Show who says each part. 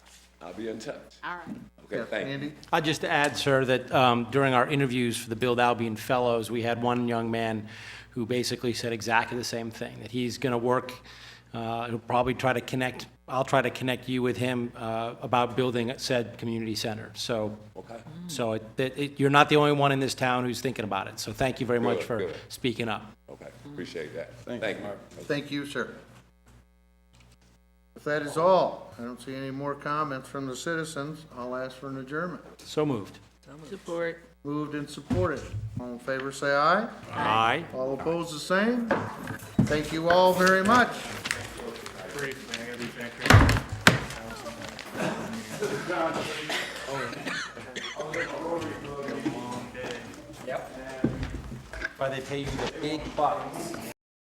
Speaker 1: I'll be in touch.
Speaker 2: All right.
Speaker 1: Okay, thank you.
Speaker 3: Andy?
Speaker 4: I'd just add, sir, that um, during our interviews for the Build Albion Fellows, we had one young man who basically said exactly the same thing, that he's going to work, uh, he'll probably try to connect, I'll try to connect you with him uh, about building said community center. So,
Speaker 1: Okay.
Speaker 4: so it- that- it- you're not the only one in this town who's thinking about it. So thank you very much
Speaker 1: Good,
Speaker 4: for
Speaker 1: good.
Speaker 4: speaking up.
Speaker 1: Okay, appreciate that. Thank you.
Speaker 3: Thank you, sir. If that is all, I don't see any more comments from the citizens, I'll ask for an adjournment.
Speaker 4: So moved.
Speaker 2: Support.
Speaker 3: Moved and supported. All in favor, say aye.
Speaker 4: Aye.
Speaker 3: All opposed, the same. Thank you all very much.
Speaker 4: Why they pay you the big bucks.